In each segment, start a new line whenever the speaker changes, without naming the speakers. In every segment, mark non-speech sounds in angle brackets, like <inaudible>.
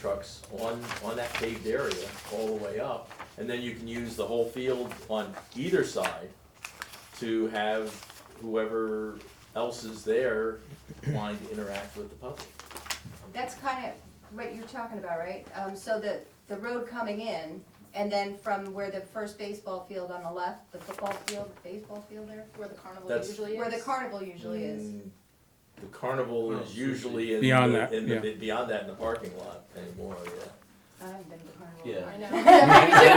trucks on, on that paved area all the way up. And then you can use the whole field on either side to have whoever else is there wanting to interact with the public.
That's kind of what you're talking about, right? Um, so the, the road coming in, and then from where the first baseball field on the left, the football field, the baseball field there,
Where the carnival
That's-
usually is.
where the carnival usually is.
Mm, The carnival
Well,
is usually in the,
Beyond that,
in the,
yeah.
beyond that in the parking lot anymore, yeah.
I haven't been to the carnival. <laughs>
Yeah.
I know. <laughs>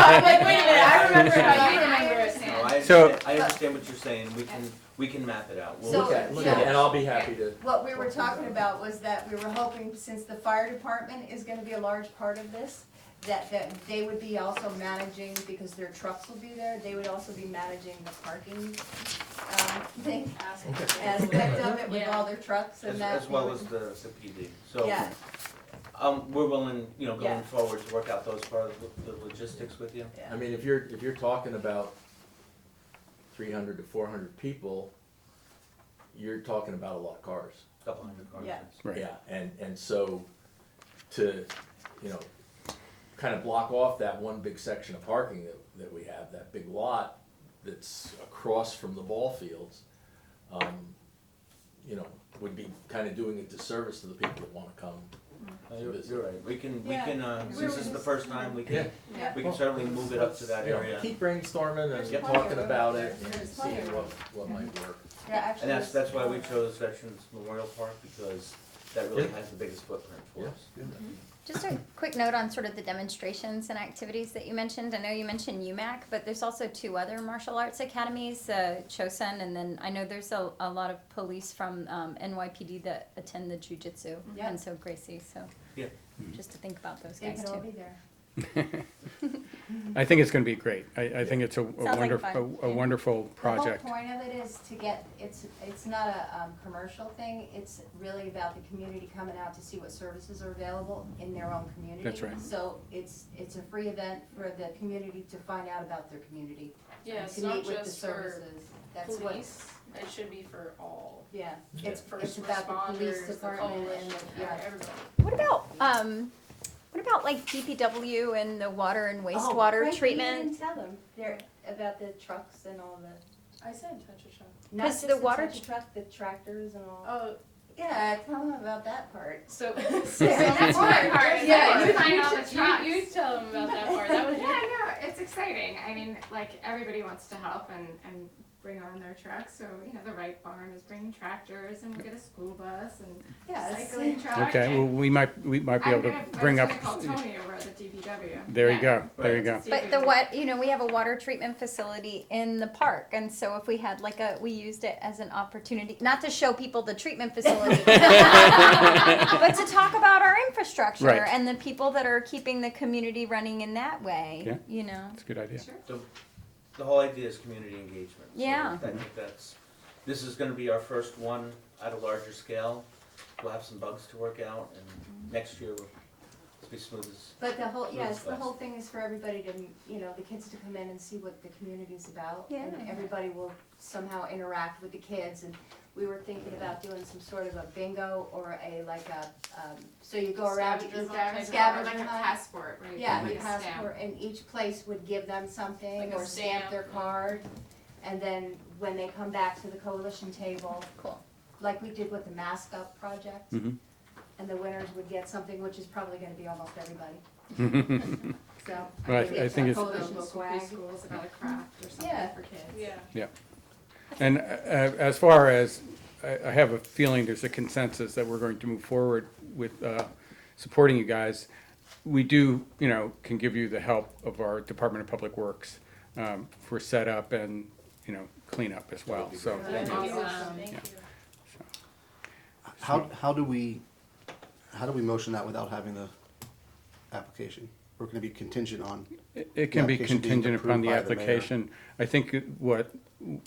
I'm like, wait a minute, I remember it,
Yeah.
but you remember it,
No,
Sam.
I
So-
understand, I understand what you're saying, we can, we can map it out. We'll
So-
look at it.
Look
Yeah,
at it.
And I'll be happy to,
What we were talking about was that we were hoping, since the fire department is gonna be a large part of this, that, that they would be also managing, because their trucks will be there, they would also be managing the parking, um, thing,
Ask
<coughs>
aspect of it with all their trucks and
As,
that.
as well as the, the PD, so.
Yeah,
Um, we're willing, you know,
Yeah.
going forward to work out those part of the logistics with you.
yeah.
I mean, if you're, if you're talking about three hundred to four hundred people, you're talking about a lot of cars.
Couple hundred cars.
Yeah.
Right.
Yeah, and, and so to, you know, kind of block off that one big section of parking that, that we have, that big lot that's across from the ball fields, um, you know, would be kind of doing a disservice to the people that wanna come.
No, You're, you're right, we can, we
Yeah.
can, uh,
We're
since it's the
just-
first time, we can,
Yeah.
we can certainly move it up to that
You know,
area.
Keep brainstorming
There's
and
plenty of
talking
room.
about it and
There's plenty
seeing
of
what, what
room.
might work.
Yeah, actually.
And that's, that's why we
it's-
chose Veterans Memorial Park, because that really
Yeah.
has the biggest footprint for
Yeah.
us.
Just a quick note on sort of the demonstrations and activities that you mentioned. I know you mentioned UMAC, but there's also two other martial arts academies, uh, Chosun, and then I know there's a, a lot of police from um, NYPD that attend the jujitsu,
Yeah.
and so Gracie. So
Yeah.
just to think about those
They
guys
could all
too.
be there.
I think it's going to be great. I, I think it's a, a
like
wonderful, a
fun.
wonderful project.
The whole point of it is to get, it's, it's not a, um, commercial thing, it's really about the community coming out to see what services are available in their own community.
That's right.
So it's, it's a free event for the community to find out about their community.
Yeah,
and
it's not
To meet with the
just for
services, that's what,
police, it should be for all.
yeah,
Yeah.
it's, it's
First
about the police
responders, the
department and,
coalition,
the- yeah.
everybody.
What about um, what about like DPW and the water and
Oh,
wastewater
right, you
treatment?
didn't tell them, they're, about the trucks and all the,
I said touch a shop.
not
'Cause
just
the
the
water
touchy truck, the tractors and all.
Oh,
Yeah, tell them about that part.
so.
that's
my part, is that
Yeah,
you find all the
you,
trucks.
you, you tell them about that part, that was
Yeah,
your.
no, it's exciting. I mean, like everybody wants to help and, and bring on their trucks. So you know, the Wright Barn is bringing tractors, and we'll get a school bus and
Yes. <laughs>
cycling truck.
Okay, well,
and
we might, we might be
I'm
able to
gonna-
bring
I'm
up,
just gonna call Tony over at the DBW.
there you
Yeah.
go, there you
Right.
go.
See if we
But the
can-
what you know, we have a water treatment facility in the park, and so if we had like a, we used it as an opportunity not to show people the treatment facility, but to talk about our infrastructure
Right.
and the people that are keeping the community running in that way.
Yeah.
You know,
That's a good idea.
Sure.
The, the whole idea is community engagement. So
Yeah.
I think that's, this is gonna be our first one at a larger scale. We'll have some bugs to work out and next year we'll it'll be smooth as,
But the whole, yes, the
Yes.
whole thing is for everybody to, you know, the kids to come in and see what the community's about. And
Yeah.
everybody will somehow interact with the kids, and we were thinking about doing some sort of a bingo or a, like a, um, so you go around. you-
Scavenger hunt.
Scavenger,
Scavenger
like a
hunt.
passport, right?
Yeah,
like
the
a stamp.
passport, and each place would give them something
Like a
or stamp
stamp.
their card. And then when they come back to the coalition table. Cool. Like we did with the mask up project.
Mhm.
And the winners would get something, which is probably gonna be almost everybody,
<laughs>
so.
Well, I- I think it's-
Or
Coalition
local
swag.
preschools about a craft or
Yeah.
something for kids.
Yeah.
And uh, as far as, I, I have a feeling there's a consensus that we're going to move forward with uh, supporting you guys. We do, you know, can give you the help of our Department of Public Works um, for setup and, you know, cleanup as well, so.
That'd be
Awesome.
awesome. Thank
Yeah.
you.
How, how do we, how do we motion that without having the application? We're gonna be contingent on,
It- It can be
application being
contingent upon
approved
the
by the mayor.
application. I think what,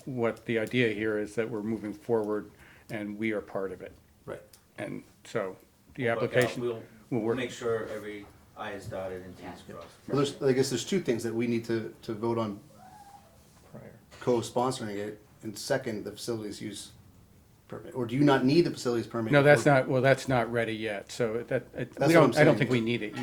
what the idea here is that we're moving forward and we are part of it.
right,
And so the
We'll work out.
application
We'll-
will
we'll
work.
make sure every I is dotted and T is
Yeah.
well,
crossed.
there's, I guess there's two things that we need to, to vote on co-sponsoring it, and second, the facilities use permit, or do you not need the facilities permit?
No, that's not, well, that's not ready yet, so that, it- we
That's what I'm
don't, I don't
saying.
think we need it